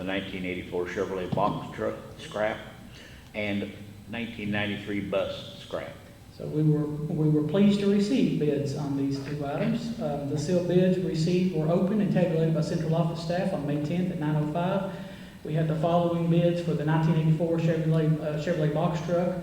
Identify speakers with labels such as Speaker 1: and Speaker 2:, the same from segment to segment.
Speaker 1: the nineteen eighty-four Chevrolet box truck scrap, and nineteen ninety-three bus scrap.
Speaker 2: So we were, we were pleased to receive bids on these two items. Uh, The sealed bids received were opened and tabulated by central office staff on May 10th at 9:05. We had the following bids for the 1984 Chevrolet, uh, Chevrolet box truck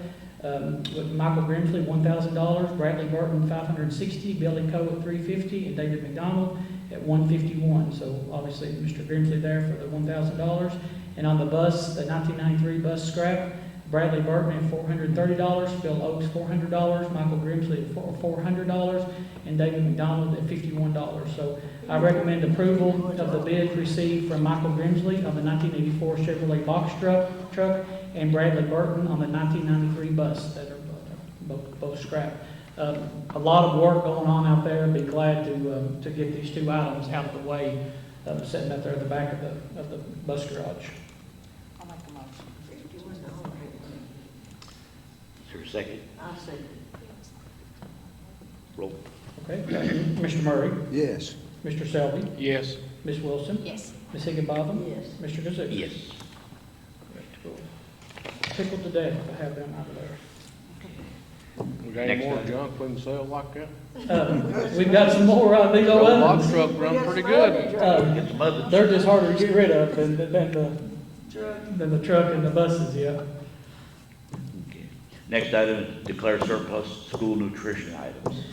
Speaker 2: um, with Michael Grimsley, $1,000, Bradley Burton, $560, Billy Coe at $350, and David McDonald at $151. So obviously, Mr. Grimsley there for the $1,000. And on the bus, the 1993 bus scrap, Bradley Burton at four hundred and thirty dollars, Phil Oaks four hundred dollars, Michael Grimsley at four, four hundred dollars, and David McDonald at fifty-one dollars. So I recommend approval of the bid received from Michael Grimsley on the nineteen eighty-four Chevrolet box truck, truck, and Bradley Burton on the nineteen ninety-three bus that are both, both scrap. Uh, a lot of work going on out there, be glad to, um, to get these two items out of the way, um, sitting out there at the back of the, of the bus garage.
Speaker 3: I'll make a motion.
Speaker 1: Is there a second?
Speaker 3: I'll second.
Speaker 1: Roll.
Speaker 2: Okay, Mr. Murray?
Speaker 4: Yes.
Speaker 2: Mr. Selby?
Speaker 1: Yes.
Speaker 2: Ms. Wilson?
Speaker 3: Yes.
Speaker 2: Ms. higginbotham
Speaker 3: Yes.
Speaker 2: Mr. Kazook?
Speaker 1: Yes.
Speaker 2: Tickled to death to have them out of there.
Speaker 5: We got
Speaker 1: Next
Speaker 5: any more
Speaker 1: item.
Speaker 5: junk we can sell like that?
Speaker 2: Uh, We've got some more on these old
Speaker 5: Old box
Speaker 2: ovens.
Speaker 5: truck run pretty good.
Speaker 2: Uh,
Speaker 1: Get some others.
Speaker 2: They're just harder to get rid of than, than the, than the truck and the buses, yeah.
Speaker 1: Okay. Next item, is declare surplus school nutrition items.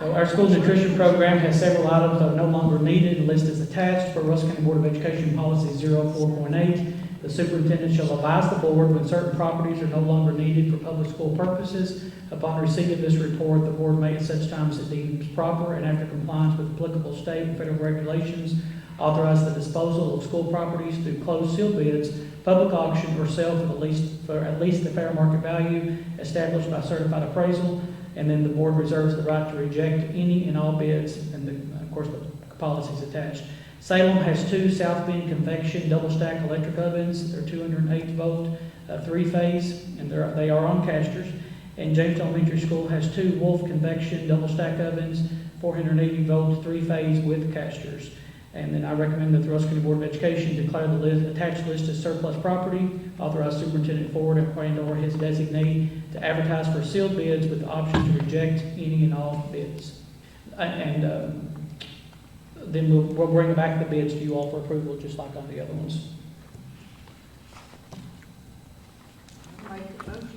Speaker 2: So our school nutrition program has several items that are no longer needed. The list is attached for Russell County Board of Education Policy 04.8. The superintendent shall advise the board when certain properties are no longer needed for public school purposes. Upon receipt of this report, the board may at such times as it deems proper and after compliance with applicable state and federal regulations, authorize the disposal of school properties through closed seal bids, public auction, or sale for the least, for at least the fair market value established by certified appraisal. And then the board reserves the right to reject any and all bids, and the- of course, the policy's attached. Salem has two South Bend convection double-stack electric ovens. They're 208-volt, uh, three-phase, and they're, they are on casters. And Jamestown Elementary School has two Wolf convection double-stack ovens, 480-volt, three-phase with casters. And then I recommend that the Russell County Board of Education declare the list, attached list as surplus property, authorize superintendent Ford and/or his designee to advertise for sealed bids with the option to reject any and all bids. A- And um, then we'll, we'll bring back the bids to you all for approval, just like on the other ones.
Speaker 3: Make the motion.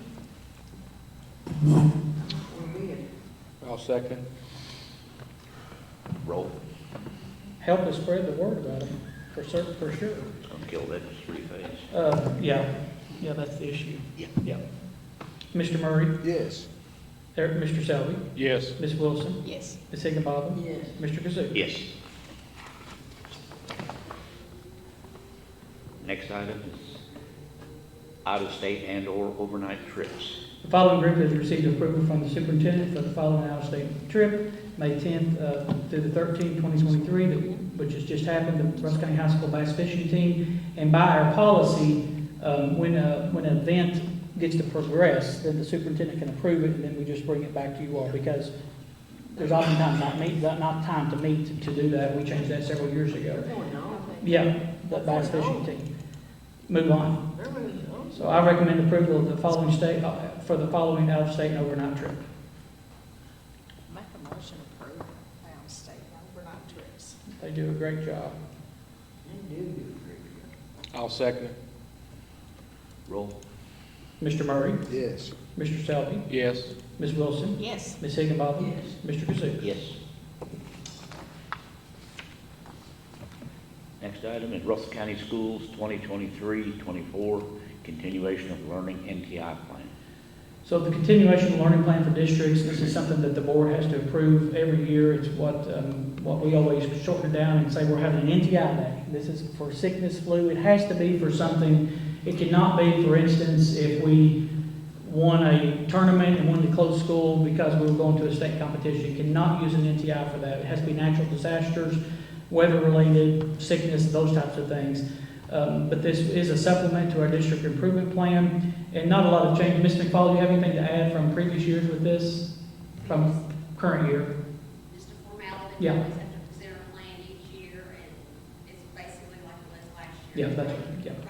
Speaker 3: We're in.
Speaker 5: I'll second.
Speaker 1: Roll.
Speaker 2: Help us spread the word about them, for certain, for sure.
Speaker 1: It's gonna kill that three phase.
Speaker 2: Uh, yeah, yeah, that's the issue.
Speaker 1: Yeah.
Speaker 2: Yeah. Mr. Murray,
Speaker 4: Yes.
Speaker 2: there, Mr. Selby,
Speaker 5: Yes,
Speaker 2: Ms. Wilson,
Speaker 3: Yes.
Speaker 2: Ms. Higgins-Balton,
Speaker 3: Yes.
Speaker 2: Mr. Kazook.
Speaker 1: Yes. Next item is out-of-state and/or overnight trips.
Speaker 2: The following group has received approval from the superintendent for the following out-of-state trip, May 10th uh, through the 13th, 2023, that- which has just happened, the Russell County High School bass fishing team. And by our policy, um, when a, when an event gets to progress, then the superintendent can approve it, and then we just bring it back to you all, because there's oftentimes not meet, not not time to meet to do that. We changed that several years ago.
Speaker 3: Going on.
Speaker 2: Yeah, the bass fishing team. Move on.
Speaker 3: They're moving on.
Speaker 2: So I recommend approval of the following state, uh, for the following out-of-state and overnight trip.
Speaker 3: Make a motion approve our state overnight trips.
Speaker 2: They do a great job.
Speaker 3: They do do a great job.
Speaker 5: I'll second it.
Speaker 1: Roll.
Speaker 2: Mr. Murray,
Speaker 4: Yes.
Speaker 2: Mr. Selby,
Speaker 5: Yes,
Speaker 2: Ms. Wilson,
Speaker 3: Yes.
Speaker 2: Ms. Higginbotham,
Speaker 3: Yes.
Speaker 2: Mr. Kazook.
Speaker 1: Yes. Next item is Russell County Schools 2023-24, continuation of learning NTI plan.
Speaker 2: So the continuation of learning plan for districts, this is something that the board has to approve every year. It's what, um, what we always shorten it down and say we're having an NTI day. This is for sickness, flu. It has to be for something. It cannot be, for instance, if we won a tournament and wanted to close school because we were going to a state competition. You cannot use an NTI for that. It has to be natural disasters, weather-related, sickness, those types of things. Um, But this is a supplement to our district improvement plan. And not a lot of change. Ms. McFaul, do you have anything to add from previous years with this, from current year?
Speaker 6: Just a formality.
Speaker 2: Yeah.
Speaker 6: We always have to present a plan each year, and it's basically like it was last year.
Speaker 2: Yeah, that's, right. yeah.